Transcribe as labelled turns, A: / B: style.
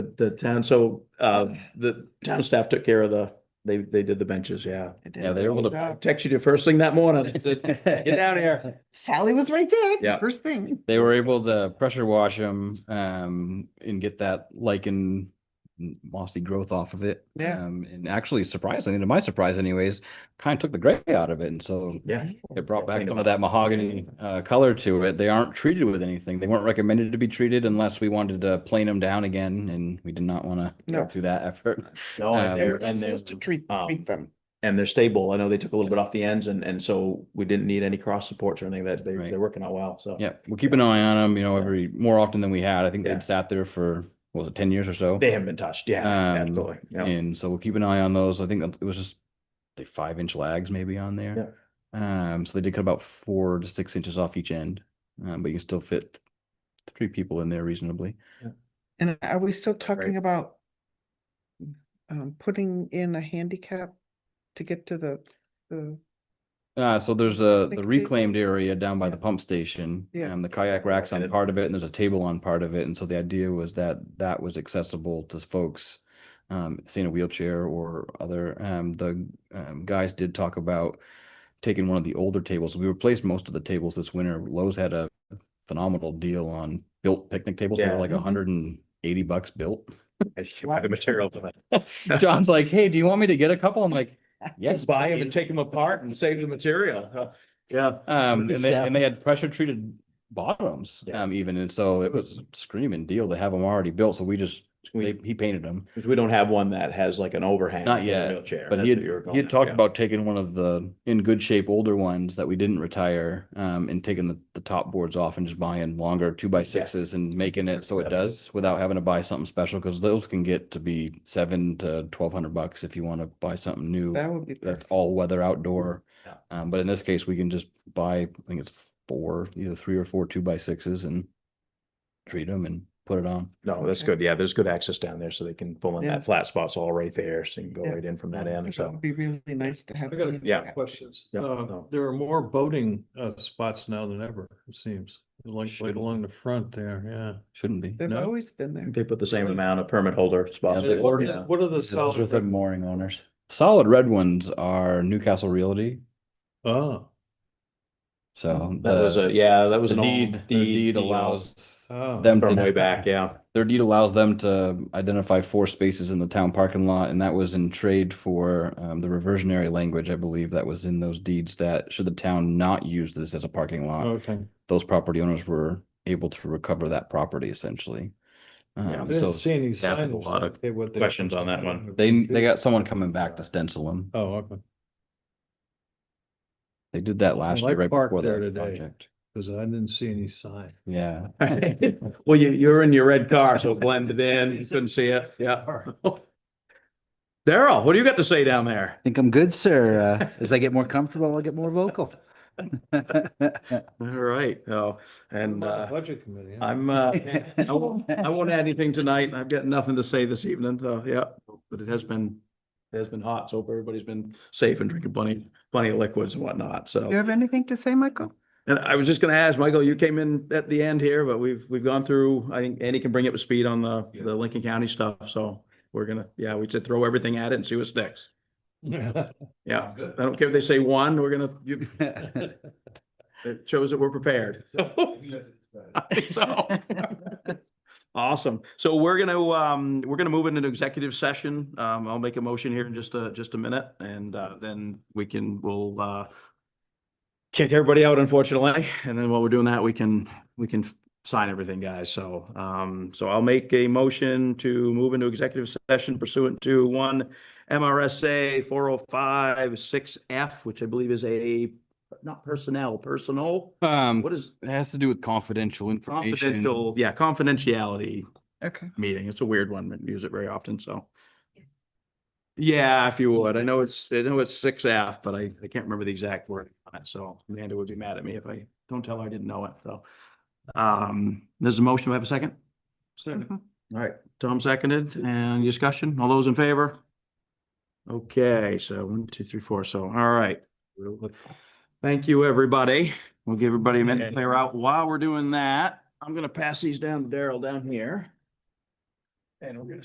A: the town, so, uh, the town staff took care of the, they, they did the benches, yeah.
B: Yeah, they're able to,
A: Texted you first thing that morning. Said, Get down here.
C: Sally was right there.
A: Yeah.
C: First thing.
B: they were able to pressure wash them, um, and get that lichen mossy growth off of it.
C: Yeah.
B: Um, and actually surprisingly, to my surprise anyways, kind of took the gray out of it. And so
A: Yeah.
B: It brought back
A: Think
B: some
A: about
B: of that mahogany uh, color to it. They aren't treated with anything. They weren't recommended to be treated unless we wanted to plane them down again, and we did not want to
C: No.
B: go through that effort.
A: No,
B: Um,
A: and
C: They
A: they're,
C: were
A: and
C: not
A: they're,
C: supposed to treat,
A: um,
C: treat them.
A: and they're stable. I know they took a little bit off the ends and, and so we didn't need any cross supports or anything that they,
B: Right.
A: they're working out well, so.
B: Yeah, we'll keep an eye on them. You know, every more often than we had. I think
A: Yeah.
B: they'd sat there for what was it ten years or so,
A: They haven't been touched, yeah,
B: Um,
A: absolutely, yeah.
B: and so we'll keep an eye on those. I think it was just the five inch lags maybe on there. Um, so they did cut about four to six inches off each end, um, but you can still fit three people in there reasonably.
C: And are we still talking
A: Right.
C: about um, putting in a handicap to get to the, the,
B: Uh, so there's a, the
C: Like
B: reclaimed area down by
C: Yeah.
B: the pump station.
C: Yeah.
B: And the kayak racks
A: And
B: on
A: it-
B: part of it, and there's a table on part of it, and so the idea was that that was accessible to folks. Um, seeing a wheelchair or other, um, the, um, guys did talk about taking one of the older tables. We replaced most of the tables this winter. Lowe's had a phenomenal deal on built picnic tables. They
A: Yeah.
B: were like
C: Mhm.
B: hundred and eighty bucks built.
A: The material for that.
B: John's like, hey, do you want me to get a couple? I'm like, yes.
A: Buy them and
B: please."
A: take them apart and save the material, huh? yeah.
B: Um,
A: Good
B: and they,
A: stuff.
B: and they had pressure treated bottoms,
A: Yeah.
B: um, even, and so it was a screaming deal to have them already built, so we just, they,
A: We,
B: he painted them.
A: because we don't have one that has like an overhang.
B: Not
A: for the
B: yet,
A: Wheelchair.
B: But
A: that's
B: he had,
A: what you were going
B: he had
A: at,
B: talked
A: yeah.
B: about taking one of the in good shape older ones that we didn't retire, um, and taking the, the top boards off and just buying longer two by sixes and making it so it
A: Yeah.
B: does without having to buy something special, because those can get to be seven to twelve hundred bucks if you want to buy something new.
C: that would be.
B: that's
C: perfect.
B: all weather outdoor.
A: Yeah.
B: Um, but in this case, we can just buy, I think it's four, either three or four two by sixes and treat them and put it on.
A: No, that's
C: Okay.
A: good. Yeah, there's good access down there so they can pull in
C: Yeah.
A: that flat spot's all right there. So you can go
C: Yeah.
A: right in from that
C: I
A: end.
C: think That
A: So
C: would be really nice to have.
D: I got
A: Yeah.
D: a couple
C: handicap.
D: questions.
A: Yeah,
D: Uh,
A: no.
D: there are more boating, uh, spots now than ever, it seems, like,
B: Should-
D: like along the front there, yeah.
B: Shouldn't be.
C: They've
D: No.
C: always been there.
A: they put the same amount of permit holder spots.
B: Yeah, they
A: in,
B: ordered
A: yeah.
D: What are the solid? red-
B: mooring owners. Solid red ones are Newcastle Realty,
D: Oh,
B: so.
A: That was
B: the-
A: a, yeah, that was
B: The
A: an old.
B: deed, their deed
A: deal
B: allows
D: oh.
B: them.
A: From
B: to-
A: way back, yeah.
B: Their deed allows them to identify four spaces in the town parking lot, and that was in trade for, um, the reversionary language, I believe, that was in those deeds that should the town not use this as a parking lot.
D: Okay.
B: those property owners were able to recover that property essentially.
A: Yeah,
D: I
B: Um,
D: didn't
B: so
D: see any
A: staff had a
D: signs.
A: lot of
D: that they- what they-
A: questions on that one.
B: they, they got someone coming back to stencil them.
D: Oh, okay,
B: They did that last year
D: like
B: right
D: Park
B: before
D: there
B: that
D: today.
B: project.
D: because I didn't see any sign.
B: Yeah.
A: Well, you, you're in your red car, so blended in, you couldn't see it, yeah. Daryl, what do you got to say down there?
E: think I'm good, sir. Uh, as I get more comfortable, I'll get more vocal.
A: All right, oh, and,
D: Not a
A: uh,
D: Budget committee. huh?
A: I'm, uh, I won't, I won't add anything tonight. I've got nothing to say this evening, so, yeah, but it has been, it has been hot, so hope everybody's been safe and drinking plenty, plenty of liquids and whatnot,
C: You
A: so.
C: have anything to say, Michael?
A: And I was just gonna ask, Michael, you came in at the end here, but we've, we've gone through, I think Andy can bring up to speed on the, the Lincoln County stuff, so we're gonna, yeah, we should throw everything at it and see what sticks. Yeah,
D: Good.
A: I don't care if they say one, we're gonna, you- it shows that we're prepared. I think so. Awesome. So we're gonna, um, we're gonna move into an executive session. Um, I'll make a motion here in just a, just a minute and, uh, then we can, we'll, uh, kick everybody out unfortunately. And then while we're doing that, we can, we can sign everything, guys. So, um, so I'll make a motion to move into executive session pursuant to one MRSA four oh five six F, which I believe is a, not personnel, personal.
B: Um,
A: What is
B: it has to do with confidential information.
A: confidential? Yeah, confidentiality
C: Okay.
A: meeting. It's a weird one. We don't use it very often, so. Yeah, if you would. I know it's, I know it's six F, but I, I can't remember the exact word on it, so Amanda would be mad at me if I don't tell her I didn't know it, so. Um, there's a motion. Do I have a second? Second. All right, Tom seconded. And discussion? All those in favor? Okay, so one, two, three, four. So, all right. Thank you, everybody. We'll give everybody a minute to clear out. While we're doing that, I'm gonna pass these down to Daryl down here. And we're gonna